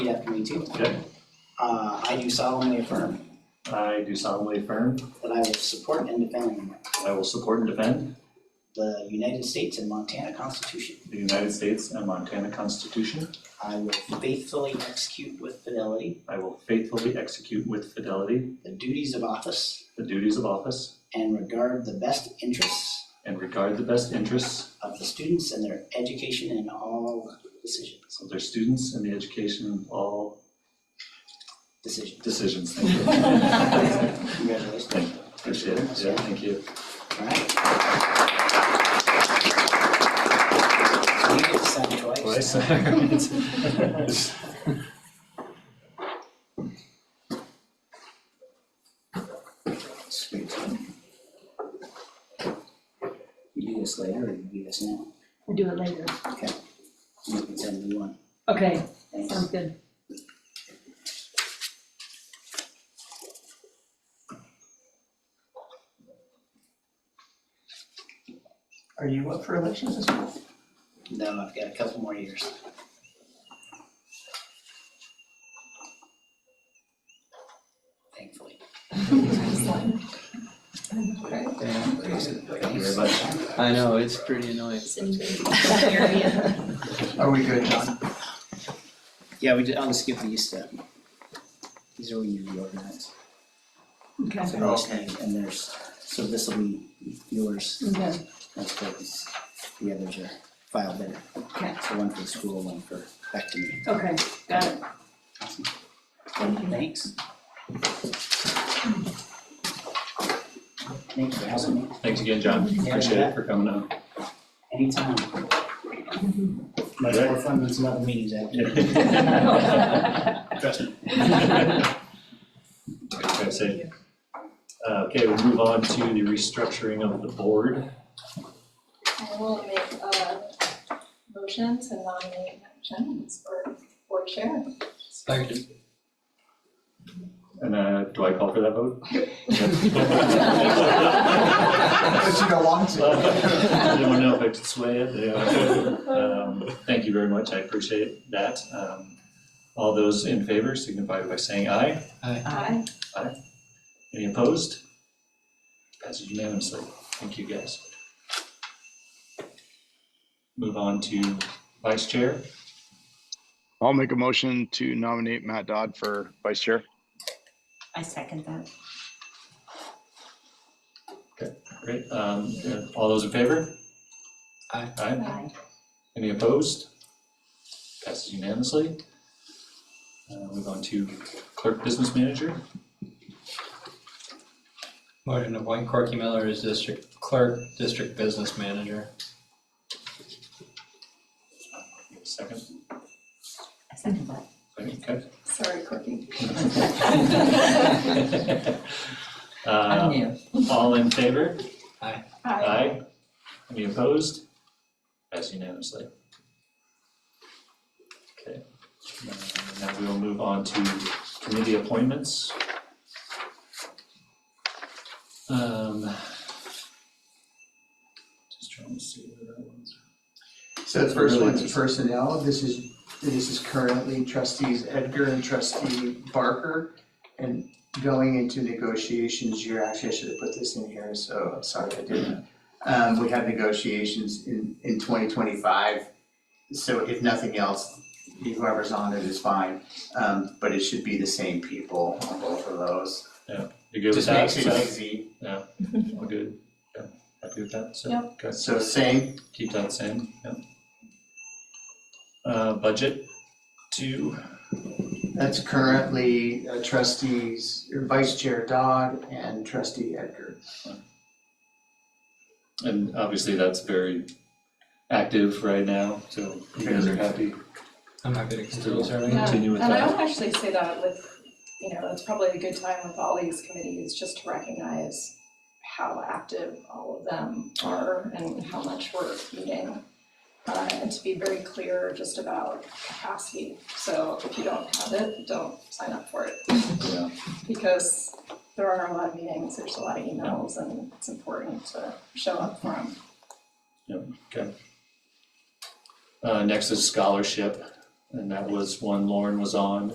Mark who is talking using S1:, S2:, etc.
S1: have agreed to.
S2: Okay.
S1: Uh, I do solemnly affirm
S2: I do solemnly affirm
S1: that I will support and defend
S2: that I will support and defend
S1: the United States and Montana Constitution.
S2: the United States and Montana Constitution.
S1: I will faithfully execute with fidelity
S2: I will faithfully execute with fidelity
S1: the duties of office
S2: the duties of office
S1: and regard the best interests
S2: and regard the best interests
S1: of the students and their education in all decisions,
S2: of their students and the education in all
S1: decisions.
S2: decisions. Thank you.
S1: Congratulations.
S2: Appreciate it. Yeah, thank you.
S1: All right. You get to sign twice.
S2: Twice.
S1: Sweet. We do this later or you do this now?
S3: We'll do it later.
S1: You can send me one.
S3: Okay,
S1: Thanks.
S3: sounds good.
S4: Are you up for elections this month?
S1: No, I've got a couple more years. Thankfully.
S2: Thank you very much.
S5: I know, it's pretty annoying.
S4: Are we good, John?
S1: Yeah, we did, I'll just give these to, these are when you reorganize.
S3: Okay,
S1: So they're listening, And there's, so this will be yours,
S3: okay,
S1: that's what is- the others are filed there.
S3: okay,
S1: So one for the school, one for, back to me.
S3: okay, got it.
S1: Awesome.
S3: Thank you.
S1: Thanks. Thanks for having me.
S2: Thanks again, John. Appreciate it for coming out.
S1: Anytime.
S3: Mm-hmm.
S1: Much more fun than some other meetings out there. Trust me.
S2: Okay, so, uh, Okay, we'll move on to the restructuring of the board.
S6: I will make a motion to nominate Matt Jennings for board chair.
S5: Second.
S2: And uh, do I call for that vote?
S4: But you don't want to.
S2: I didn't want to Uh, know if I could sway it. Yeah. Um, Thank you very much, I appreciate that. Um, All those in favor signify by saying aye.
S6: Aye.
S2: Any opposed? Passes unanimously. Thank you, guys. Move on to vice chair.
S7: I'll make a motion to nominate Matt Dodd for vice chair.
S8: I second that.
S2: Great, um, uh, all those in favor? Aye. Aye, any opposed? Passes unanimously. Uh, move on to clerk business manager,
S5: Motion to appoint Corky Miller as district clerk, district business manager.
S2: second,
S8: I second that.
S2: okay.
S6: Sorry, Corky.
S8: I'm
S2: Uh,
S8: new.
S2: all in favor?
S6: Aye.
S2: Aye, any opposed? Passes unanimously. Okay, Uh, now we will move on to committee appointments. Um. Just trying to see where that was.
S4: So the first one's personnel. This is, this is currently trustees Edgar and trustee Barker. And going into negotiations, you're actually, I should have put this in here, so I'm sorry I didn't. Um, we have negotiations in, in twenty twenty-five. So if nothing else, whoever's on it is fine, um, but it should be the same people on both of those.
S2: You good with
S4: Just
S2: that?
S4: makes it easy.
S2: So, All good, yeah, happy with that, so,
S6: Yep.
S2: okay,
S4: So same,
S2: keep that same, yeah. Uh, budget two,
S4: That's currently uh, trustees, or vice chair Dodd and trustee Edgar.
S2: And obviously, that's very active right now, so you guys are happy.
S5: I'm happy to continue serving.
S6: Yeah,
S2: Continue with
S6: And I
S2: that.
S6: would actually say that with, you know, it's probably a good time with all these committees, just to recognize how active all of them are and how much we're eating. Uh, and to be very clear just about capacity, so if you don't have it, don't sign up for it.
S2: Yeah.
S6: because there are a lot of meetings, there's a lot of emails, and it's important to show up for them.
S2: Uh, next is scholarship. And that was one Lauren was on,